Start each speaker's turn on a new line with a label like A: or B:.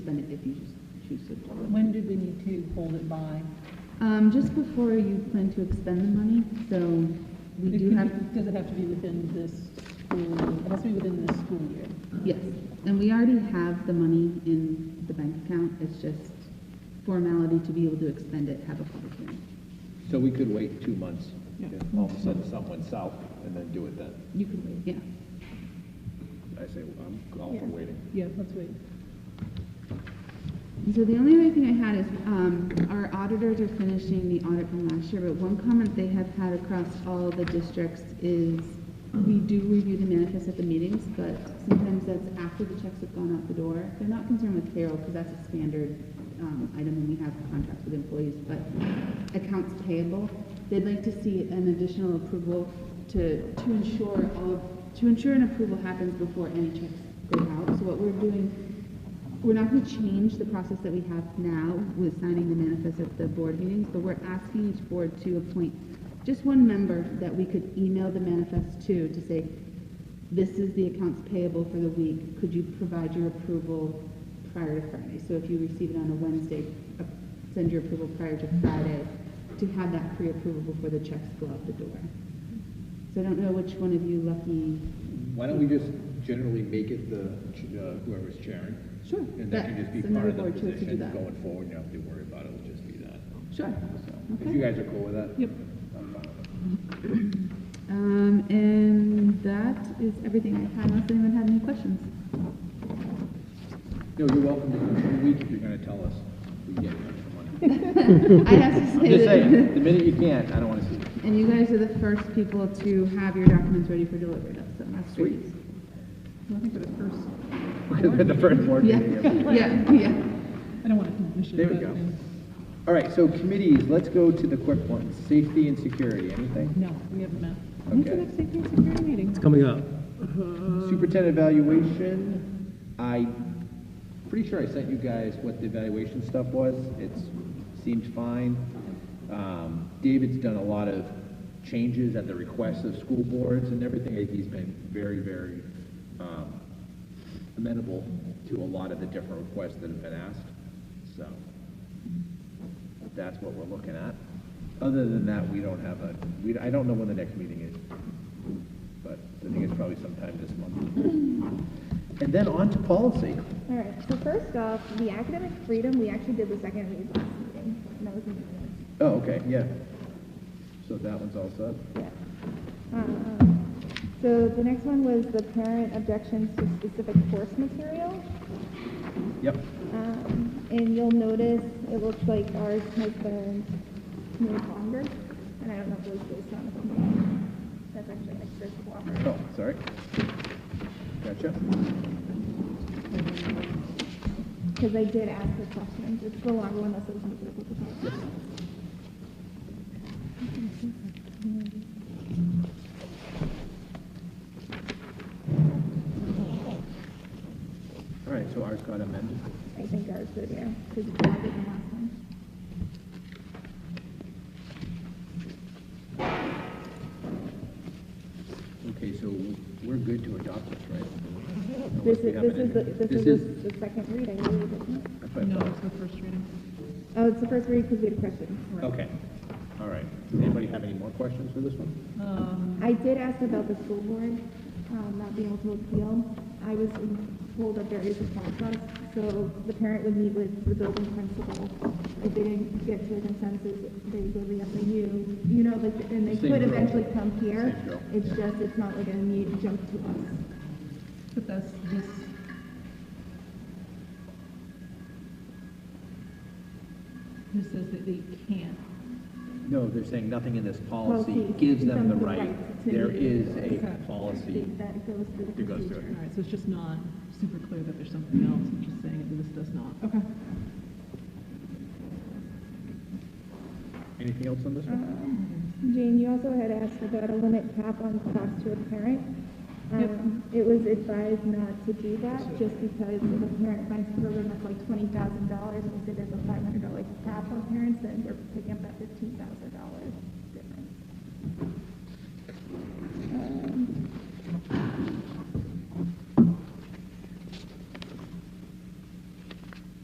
A: then if you just choose to do it.
B: When do we need to hold it by?
A: Um, just before you plan to expend the money, so we
B: It
A: do
B: can-
A: have,
B: Does it have to be within this school, it has to be within this school year?
A: yes, and we already have the money in the bank account, it's just formality to be able to expend it, have a public hearing.
C: So we could wait two months,
B: Yeah.
C: if all of a sudden someone south, and then do it then.
A: You can wait, yeah.
C: I say, I'm all for waiting.
B: Yeah, let's wait.
A: And So the only other thing I had is, um, our auditors are finishing the audit from last year, but one comment they have had across all the districts is, we do review the manifest at the meetings, but sometimes that's after the checks have gone out the door. They're not concerned with payroll, because that's a standard, um, item, and we have contracts with employees, but accounts payable, they'd like to see an additional approval to, to ensure all, of- to ensure an approval happens before any checks go out. So what we're doing we're not going to change the process that we have now with signing the manifest at the board meetings, but we're asking each board to appoint just one member that we could email the manifest to, to say, this is the accounts payable for the week, could you provide your approval prior to Friday? So if you receive it on a Wednesday, uh, send your approval prior to Friday, to have that pre-approval before the checks go out the door. So I don't know which one of you lucky,
C: Why don't we just generally make it the, ch- uh, whoever's chairing?
A: Sure,
C: And that can just be
A: that's another
C: part of
A: board too,
C: the
A: to do
C: position
A: that.
C: going forward, you don't have to worry about it, it'll just be that.
A: sure.
C: So,
A: Okay.
C: If you guys are cool with that?
B: Yep.
C: I'm fine with it.
A: Um, and that is everything I had, unless anyone had any questions.
C: No, you're welcome to come every week if you're gonna tell us we get extra money.
A: I have to
C: I'm
A: say
C: just
A: that,
C: saying, the minute you can, I don't wanna see it.
A: and you guys are the first people to have your documents ready for delivery, that's, so that's great.
B: I think for the first,
C: We're the first board
A: Yeah,
C: meeting of the year.
A: yeah, yeah.
B: I don't want to diminish it.
C: There we
B: but,
C: go.
B: um,
C: All right, so committees, let's go to the quick ones, safety and security, anything?
B: No, we haven't met. When's the
C: Okay.
B: next safety and security meeting?
D: coming up.
C: Superintendent evaluation, I, pretty sure I sent you guys what the evaluation stuff was, it seemed fine. Um, David's done a lot of changes at the request of school boards and everything, he's been very, very, um, amenable to a lot of the different requests that have been asked, so that's what we're looking at. Other than that, we don't have a, we, I don't know when the next meeting is but I think it's probably sometime this month. And then on to policy.
E: All right, so first off, the academic freedom, we actually did the second read last meeting. and That was in the
C: Oh, okay, yeah. So that one's all set.
E: minutes. Yeah. Um, So the next one was the parent objections to specific course material.
C: Yep.
E: Um, And you'll notice it looks like ours has been made longer. And I don't know if it was based on something. That's actually extra cooperative.
C: Oh, sorry. Gotcha.
E: Because I did ask the questions. It's the longer one that says musical performance.
C: All right, so ours got amended.
E: I think ours did, yeah, because it's longer than last one.
C: Okay, so we're good to adopt this, right? Unless
E: This
C: we
E: is,
C: have
E: this
C: an
E: is, the
C: amendment.
E: this is the the second read, I believe, isn't it?
C: that's what I
B: No,
C: thought.
B: it's the first reading.
E: Oh, it's the first read because we had questions.
C: Okay, all right. Does anybody have any more questions for this one?
B: Um,
E: I did ask about the school board, um, not being able to appeal. I was told that there is a process, so the parent would meet with the building principal. If they didn't get to a consensus, they go to the FAU, you know, like, and they
C: Same
E: could
C: drill.
E: eventually come here.
C: Same drill,
E: It's
C: yeah.
E: just, it's not like a need jump to us.
B: But that's this, this says that they can't.
C: No, they're saying nothing in this policy
E: Policy
C: gives them the
E: gives them the
C: right.
E: right to
C: There
E: meet.
C: is a
B: Okay.
C: policy.
E: That goes through the
C: It goes through
E: procedure.
B: All right, so it's just not super clear that there's something else, it's just saying that this does not. Okay.
C: Anything else on this one?
E: Jane, you also had asked about a limit cap on cost to a parent. Um, It was advised not to do that, just because if a parent finds a program that's like twenty thousand dollars, and we said there's a five hundred dollar cap on parents, then we're picking up that fifteen thousand dollar difference.